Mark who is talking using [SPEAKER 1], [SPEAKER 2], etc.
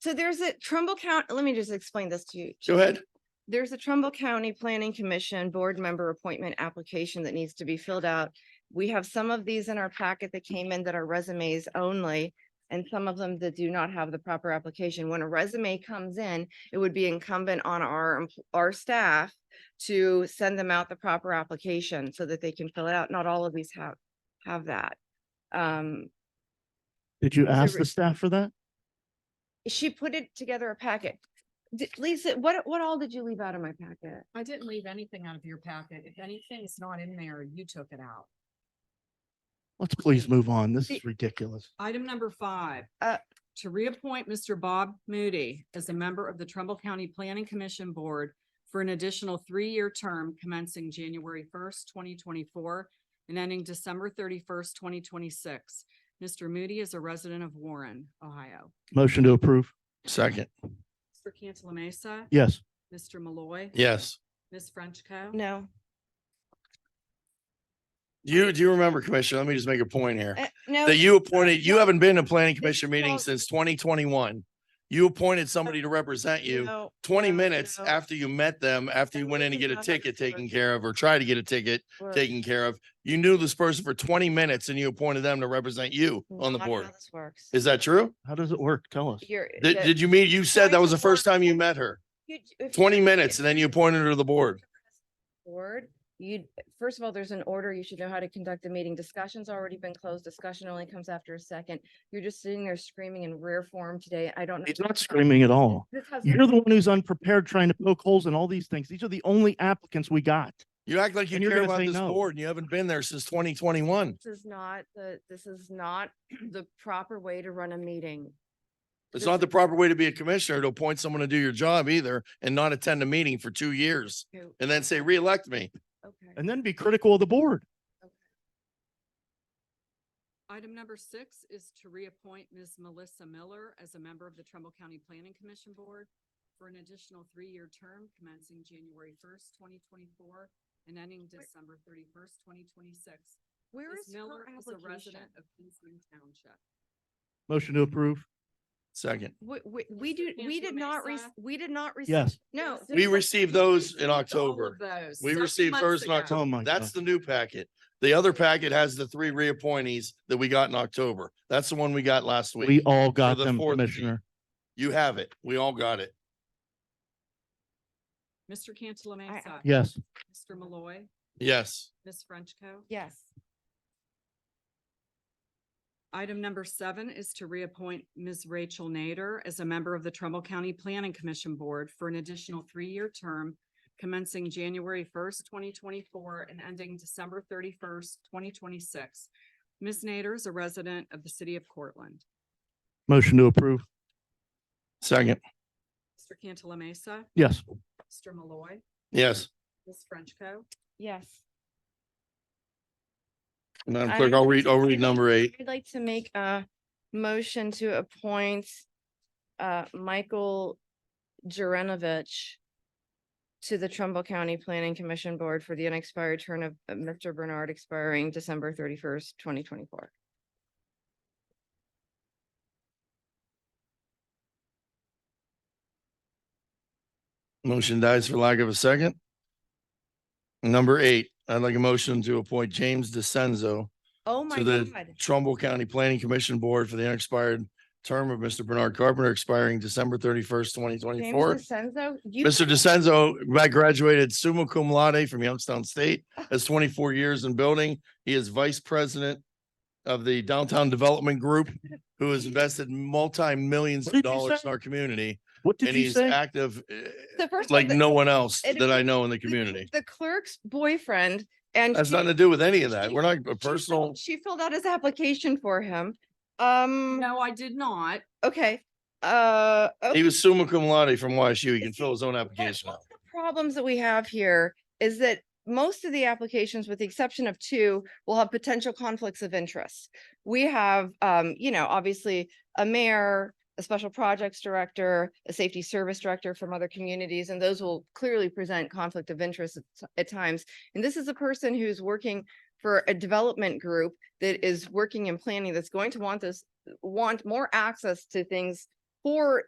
[SPEAKER 1] So there's a Trumbull County, let me just explain this to you.
[SPEAKER 2] Go ahead.
[SPEAKER 1] There's a Trumbull County Planning Commission Board Member Appointment Application that needs to be filled out. We have some of these in our packet that came in that are resumes only, and some of them that do not have the proper application. When a resume comes in, it would be incumbent on our, empl- our staff to send them out the proper application so that they can fill it out. Not all of these have, have that. Um,
[SPEAKER 3] Did you
[SPEAKER 1] Is it
[SPEAKER 3] ask
[SPEAKER 1] re-
[SPEAKER 3] the staff for that?
[SPEAKER 1] She put it together a packet. Di- Lisa, what, what all did you leave out of my packet?
[SPEAKER 4] I didn't leave anything out of your packet. If anything's not in there, you took it out.
[SPEAKER 3] Let's please move on. This is
[SPEAKER 1] The-
[SPEAKER 3] ridiculous.
[SPEAKER 4] Item number five.
[SPEAKER 1] Uh,
[SPEAKER 4] To reappoint Mr. Bob Moody as a member of the Trumbull County Planning Commission Board for an additional three-year term commencing January first, twenty twenty-four and ending December thirty-first, twenty twenty-six. Mr. Moody is a resident of Warren, Ohio.
[SPEAKER 3] Motion to approve.
[SPEAKER 2] Second.
[SPEAKER 4] Mr. Cantala Mesa.
[SPEAKER 3] Yes.
[SPEAKER 4] Mr. Malloy.
[SPEAKER 2] Yes.
[SPEAKER 4] Ms. Frenchco.
[SPEAKER 1] No,
[SPEAKER 2] You, do you remember, Commissioner? Let me just make a point here.
[SPEAKER 1] uh, no.
[SPEAKER 2] That you appointed, you haven't been to planning commission
[SPEAKER 1] Well-
[SPEAKER 2] meetings since twenty twenty-one. You appointed somebody to represent you
[SPEAKER 1] no,
[SPEAKER 2] twenty
[SPEAKER 1] no,
[SPEAKER 2] minutes
[SPEAKER 1] no.
[SPEAKER 2] after you met them, after you
[SPEAKER 1] That
[SPEAKER 2] went in to
[SPEAKER 1] is
[SPEAKER 2] get a
[SPEAKER 1] not how
[SPEAKER 2] ticket
[SPEAKER 1] this works.
[SPEAKER 2] taken care of or try to get a ticket
[SPEAKER 1] We're
[SPEAKER 2] taken care of. You knew this person for twenty minutes and you appointed them to represent you on the
[SPEAKER 1] not how
[SPEAKER 2] board.
[SPEAKER 1] This works.
[SPEAKER 2] Is that true?
[SPEAKER 3] How does it work? Tell us.
[SPEAKER 1] You're.
[SPEAKER 2] Did,
[SPEAKER 1] that-
[SPEAKER 2] did you meet, you said that
[SPEAKER 1] Going
[SPEAKER 2] was
[SPEAKER 1] to
[SPEAKER 2] the first
[SPEAKER 1] work.
[SPEAKER 2] time you met her,
[SPEAKER 1] you- if you
[SPEAKER 2] twenty
[SPEAKER 1] were
[SPEAKER 2] minutes and
[SPEAKER 1] gonna
[SPEAKER 2] then you
[SPEAKER 1] be
[SPEAKER 2] appointed her to the board.
[SPEAKER 1] Board, you, first of all, there's an order. You should know how to conduct a meeting. Discussion's already been closed. Discussion only comes after a second. You're just sitting there screaming in rare form today. I don't. know
[SPEAKER 3] He's
[SPEAKER 1] what
[SPEAKER 3] not
[SPEAKER 1] this-
[SPEAKER 3] screaming at all.
[SPEAKER 1] This has.
[SPEAKER 3] You're the one who's unprepared trying to poke holes in all these things. These are the only applicants we got.
[SPEAKER 2] You act like you
[SPEAKER 3] And you're
[SPEAKER 2] care
[SPEAKER 3] gonna
[SPEAKER 2] about
[SPEAKER 3] say
[SPEAKER 2] this
[SPEAKER 3] no.
[SPEAKER 2] board and you haven't been there since twenty twenty-one.
[SPEAKER 1] This is not the, this is not the proper way to run a meeting.
[SPEAKER 2] It's
[SPEAKER 1] This
[SPEAKER 2] not the
[SPEAKER 1] is-
[SPEAKER 2] proper way to be a commissioner to appoint someone to do your job either and not attend a meeting for two years
[SPEAKER 1] Okay,
[SPEAKER 2] and then say, reelect me.
[SPEAKER 1] Okay.
[SPEAKER 3] And then be critical of the board.
[SPEAKER 4] Item number six is to reappoint Ms. Melissa Miller as a member of the Trumbull County Planning Commission Board for an additional three-year term commencing January first, twenty twenty-four and ending December thirty-first, twenty twenty-six.
[SPEAKER 1] Where
[SPEAKER 4] Ms.
[SPEAKER 1] is her
[SPEAKER 4] Miller is a
[SPEAKER 1] application?
[SPEAKER 4] resident of Kingsland Township.
[SPEAKER 3] Motion to approve.
[SPEAKER 2] Second,
[SPEAKER 1] We, we, we
[SPEAKER 4] Mr.
[SPEAKER 1] do, we did
[SPEAKER 4] Cantala
[SPEAKER 1] not, re-
[SPEAKER 4] Mesa.
[SPEAKER 1] we did not. receive-
[SPEAKER 3] Yes.
[SPEAKER 1] No.
[SPEAKER 2] We received those in
[SPEAKER 4] All of
[SPEAKER 2] October.
[SPEAKER 4] those,
[SPEAKER 2] We
[SPEAKER 4] several
[SPEAKER 2] received
[SPEAKER 4] months
[SPEAKER 2] hers in
[SPEAKER 4] ago.
[SPEAKER 2] October.
[SPEAKER 3] Oh my God.
[SPEAKER 2] that's the new packet. The other packet has the three reappointees that we got in October. That's the one we got last
[SPEAKER 3] We
[SPEAKER 2] week.
[SPEAKER 3] all got
[SPEAKER 2] the
[SPEAKER 3] them,
[SPEAKER 2] fourth seat.
[SPEAKER 3] Commissioner.
[SPEAKER 2] You have it. We all got it.
[SPEAKER 4] Mr. Cantala Mesa.
[SPEAKER 3] Yes.
[SPEAKER 4] Mr. Malloy,
[SPEAKER 2] Yes.
[SPEAKER 4] Ms. Frenchco.
[SPEAKER 1] Yes.
[SPEAKER 4] Item number seven is to reappoint Ms. Rachel Nader as a member of the Trumbull County Planning Commission Board for an additional three-year term commencing January first, twenty twenty-four and ending December thirty-first, twenty twenty-six. Ms. Nader is a resident of the city of Cortland.
[SPEAKER 3] Motion to approve.
[SPEAKER 2] Second,
[SPEAKER 4] Mr. Cantala Mesa,
[SPEAKER 3] Yes.
[SPEAKER 4] Mr. Malloy,
[SPEAKER 2] yes.
[SPEAKER 4] Ms. Frenchco.
[SPEAKER 1] Yes.
[SPEAKER 2] Madam
[SPEAKER 1] I
[SPEAKER 2] Clerk,
[SPEAKER 1] don't
[SPEAKER 2] I'll read, I'll read
[SPEAKER 1] I'd
[SPEAKER 2] number
[SPEAKER 1] like-
[SPEAKER 2] eight.
[SPEAKER 1] I'd like to make a motion to appoint uh, Michael Jurenovich to the Trumbull County Planning Commission Board for the unexpired term of uh, Mr. Bernard expiring December thirty-first, twenty twenty-four.
[SPEAKER 2] Motion dies for lack of a second. Number eight, I'd like a motion to appoint James DeCenzo
[SPEAKER 1] Oh, my
[SPEAKER 2] To the
[SPEAKER 1] God.
[SPEAKER 2] Trumbull County Planning Commission Board for the unexpired term of Mr. Bernard Carpenter expiring December thirty-first, twenty
[SPEAKER 1] James
[SPEAKER 2] twenty-four.
[SPEAKER 1] DeCenzo? you-
[SPEAKER 2] Mr. DeCenzo gra- graduated summa cum laude from Youngstown State, has twenty-four years in building. He is vice president of the Downtown Development Group, who has invested multi-millions
[SPEAKER 3] What
[SPEAKER 2] of
[SPEAKER 3] did you
[SPEAKER 2] dollars
[SPEAKER 3] say?
[SPEAKER 2] in our community.
[SPEAKER 3] What did
[SPEAKER 2] And
[SPEAKER 3] you
[SPEAKER 2] he's
[SPEAKER 3] say?
[SPEAKER 2] active eh,
[SPEAKER 1] The first one
[SPEAKER 2] like
[SPEAKER 1] that-
[SPEAKER 2] no one else
[SPEAKER 1] it
[SPEAKER 2] that I
[SPEAKER 1] is-
[SPEAKER 2] know in the
[SPEAKER 1] the-
[SPEAKER 2] community.
[SPEAKER 1] The clerk's boyfriend and.
[SPEAKER 2] Has
[SPEAKER 1] she-
[SPEAKER 2] nothing to do with any of that.
[SPEAKER 1] she-
[SPEAKER 2] We're not a
[SPEAKER 1] she filled-
[SPEAKER 2] personal.
[SPEAKER 1] She filled out his application for him. Um,
[SPEAKER 4] No, I did not.
[SPEAKER 1] okay, uh.
[SPEAKER 2] He
[SPEAKER 1] okay,
[SPEAKER 2] was summa cum laude from YSU. He can
[SPEAKER 1] Is
[SPEAKER 2] fill his own
[SPEAKER 1] what- one of
[SPEAKER 2] application out.
[SPEAKER 1] the Problems that we have here is that most of the applications, with the exception of two, will have potential conflicts of interest. We have, um, you know, obviously a mayor, a special projects director, a safety service director from other communities, and those will clearly present conflict of interest at t- at times. And this is a person who's working for a development group that is working in planning that's going to want this, want more access to things for